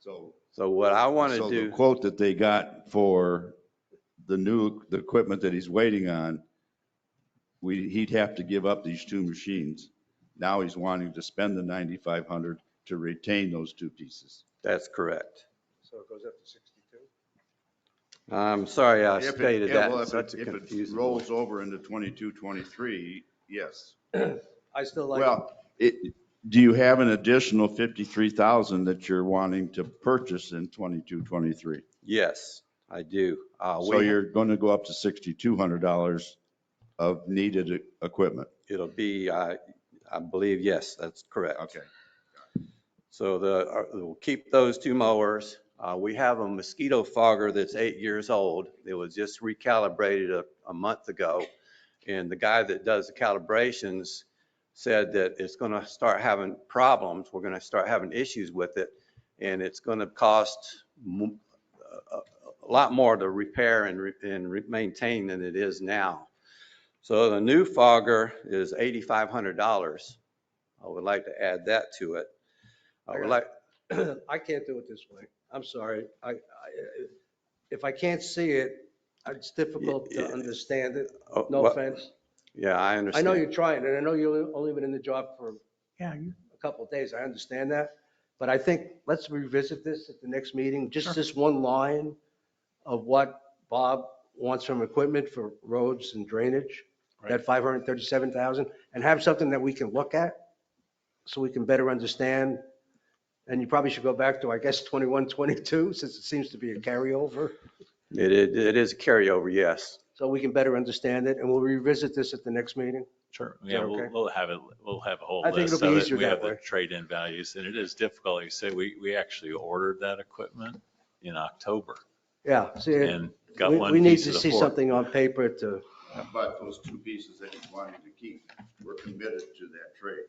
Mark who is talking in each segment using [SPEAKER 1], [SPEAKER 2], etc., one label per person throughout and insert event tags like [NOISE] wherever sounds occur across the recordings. [SPEAKER 1] So,
[SPEAKER 2] So what I want to
[SPEAKER 1] so the
[SPEAKER 2] do,
[SPEAKER 1] quote that they got for the new, the equipment that he's waiting on, we, he'd have to give up these two machines. Now he's wanting to spend the 9,500 to retain those two pieces.
[SPEAKER 2] that's correct.
[SPEAKER 3] So it goes up to 62?
[SPEAKER 2] I'm sorry I
[SPEAKER 1] If it-
[SPEAKER 2] stated
[SPEAKER 1] yeah,
[SPEAKER 2] that
[SPEAKER 1] well,
[SPEAKER 2] in
[SPEAKER 1] if it-
[SPEAKER 2] such a
[SPEAKER 1] if it
[SPEAKER 2] confusing. way.
[SPEAKER 1] Rolls over into 22, 23, yes.
[SPEAKER 3] I still like,
[SPEAKER 1] Well, it, do you have an additional 53,000 that you're wanting to purchase in 22, 23?
[SPEAKER 2] Yes, I do. Uh,
[SPEAKER 1] So
[SPEAKER 2] we-
[SPEAKER 1] you're going to go up to $6,200 of needed e- equipment.
[SPEAKER 2] It'll be, I, I believe, yes, that's correct. So the, uh, we'll keep those two mowers. Uh, we have a mosquito fogger that's eight years old. It was just recalibrated a, a month ago. And the guy that does the calibrations said that it's going to start having problems. We're going to start having issues with it. And it's going to cost mo- a, a- a lot more to repair and, re- and re- maintain than it is now. So the new fogger is $8,500. I would like to add that to it. I would like,
[SPEAKER 3] I can't do it [CLEARS THROAT] this way. I'm sorry. I, I, if I can't see it, it's difficult
[SPEAKER 2] Yeah,
[SPEAKER 3] to
[SPEAKER 2] yeah.
[SPEAKER 3] understand it.
[SPEAKER 2] oh,
[SPEAKER 3] No
[SPEAKER 2] well,
[SPEAKER 3] offense.
[SPEAKER 2] Yeah, I
[SPEAKER 3] I
[SPEAKER 2] understand.
[SPEAKER 3] know you're trying, and I know you've only been in the job for
[SPEAKER 4] Yeah, you-
[SPEAKER 3] a couple of days. I understand that. But I think let's revisit this at the next meeting, just this one line of what Bob wants from equipment for roads and drainage, that 537,000, and have something that we can look at so we can better understand. And you probably should go back to, I guess, 21, 22, since it seems to be a carryover,
[SPEAKER 2] It, it it is a carryover, yes.
[SPEAKER 3] so we can better understand it. And we'll revisit this at the next meeting.
[SPEAKER 5] Sure.
[SPEAKER 3] Is that
[SPEAKER 5] Yeah, we'll,
[SPEAKER 3] okay?
[SPEAKER 5] we'll have it, we'll have a whole
[SPEAKER 3] I think
[SPEAKER 5] list
[SPEAKER 3] it'll be
[SPEAKER 5] of it.
[SPEAKER 3] easier
[SPEAKER 5] We
[SPEAKER 3] that
[SPEAKER 5] have
[SPEAKER 3] way.
[SPEAKER 5] the trade-in values and it is difficult. Like You say, we, we actually ordered that equipment in October
[SPEAKER 3] Yeah, see,
[SPEAKER 5] and got
[SPEAKER 3] we,
[SPEAKER 5] one
[SPEAKER 3] we need
[SPEAKER 5] piece
[SPEAKER 3] to
[SPEAKER 5] of the
[SPEAKER 3] see
[SPEAKER 5] four.
[SPEAKER 3] something on paper to.
[SPEAKER 1] But those two pieces that he's wanting to keep, we're committed to that trade.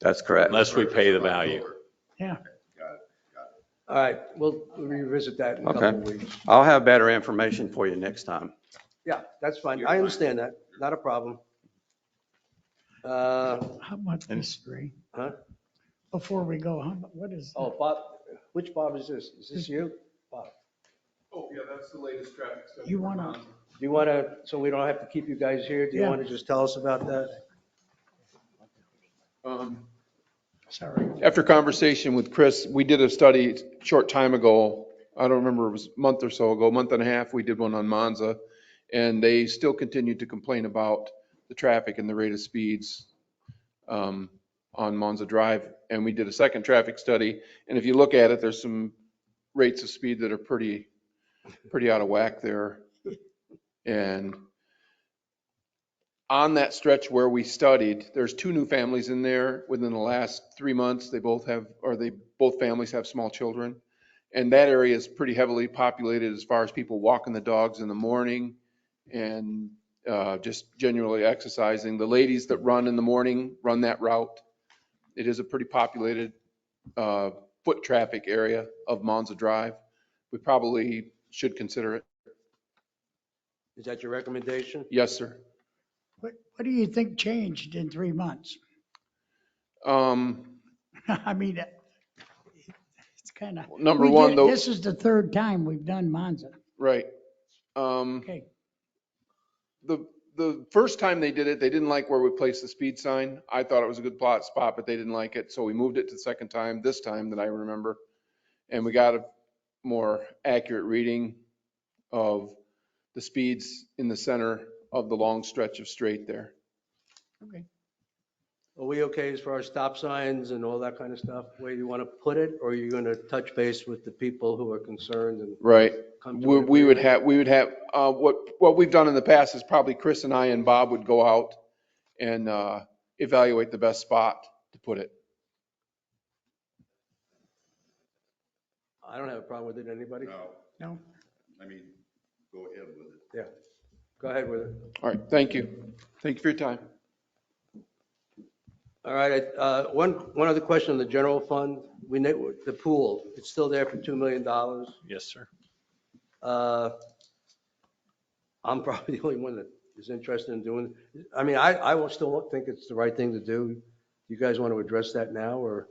[SPEAKER 2] That's correct.
[SPEAKER 5] Unless we pay the value.
[SPEAKER 4] Yeah.
[SPEAKER 1] Got it.
[SPEAKER 3] All right, we'll revisit that in a couple of weeks.
[SPEAKER 2] I'll have better information for you next time.
[SPEAKER 3] Yeah, that's fine.
[SPEAKER 1] You're
[SPEAKER 3] I
[SPEAKER 1] fine.
[SPEAKER 3] understand that. Not a problem. Uh,
[SPEAKER 4] how much history?
[SPEAKER 3] Huh?
[SPEAKER 4] Before we go, how, mu- what is,
[SPEAKER 3] oh, Bob, which Bob is this? Is this you? Bob,
[SPEAKER 6] Oh, yeah, that's the latest traffic study.
[SPEAKER 4] You
[SPEAKER 6] we're
[SPEAKER 4] wanna-
[SPEAKER 6] on.
[SPEAKER 3] do you want to, so we don't have to keep you guys here, do you
[SPEAKER 4] Yeah.
[SPEAKER 3] want to just tell us about that?
[SPEAKER 6] Um,
[SPEAKER 4] sorry,
[SPEAKER 6] After conversation with Chris, we did a study a short time ago. I don't remember, it was a month or so ago, month and a half, we did one on Monza. And they still continue to complain about the traffic and the rate of speeds um, on Monza Drive. And we did a second traffic study. And if you look at it, there's some rates of speed that are pretty, pretty out of whack there. And on that stretch where we studied, there's two new families in there within the last three months. They both have, or they, both families have small children. And that area is pretty heavily populated as far as people walking the dogs in the morning and uh, just generally exercising. The ladies that run in the morning run that route. It is a pretty populated uh, foot traffic area of Monza Drive. We probably should consider it.
[SPEAKER 3] Is that your recommendation?
[SPEAKER 6] Yes, sir.
[SPEAKER 4] what, what do you think changed in three months? [LAUGHS]
[SPEAKER 6] Um,
[SPEAKER 4] I mean, it's kind of.
[SPEAKER 6] Number one, though,
[SPEAKER 4] This is the third time we've done Monza.
[SPEAKER 6] right. Um,
[SPEAKER 4] Okay,
[SPEAKER 6] the, the first time they did it, they didn't like where we placed the speed sign. I thought it was a good plot spot, but they didn't like it. So we moved it to the second time, this time that I remember. And we got a more accurate reading of the speeds in the center of the long stretch of straight there.
[SPEAKER 4] okay.
[SPEAKER 3] Are we okay as far as stop signs and all that kind of stuff, where you want to put it? Or are you going to touch base with the people who are concerned and
[SPEAKER 6] Right.
[SPEAKER 3] come to?
[SPEAKER 6] We,
[SPEAKER 3] an
[SPEAKER 6] we would
[SPEAKER 3] agreement?
[SPEAKER 6] have, we would have, uh, what, what we've done in the past is probably Chris and I and Bob would go out and, uh, evaluate the best spot to put it.
[SPEAKER 3] I don't have a problem with it, anybody?
[SPEAKER 1] No,
[SPEAKER 4] No,
[SPEAKER 1] I mean, go ahead with it.
[SPEAKER 3] Yeah, go ahead with it.
[SPEAKER 6] All right. Thank you. Thank you for your time.
[SPEAKER 3] All right, uh, one, one other question on the general fund. We, ne- the pool, it's still there for $2 million.
[SPEAKER 5] Yes, sir.
[SPEAKER 3] Uh, I'm [LAUGHS] probably the only one that is interested in doing, I mean, I, I will still think it's the right thing to do. You guys want to address that now, or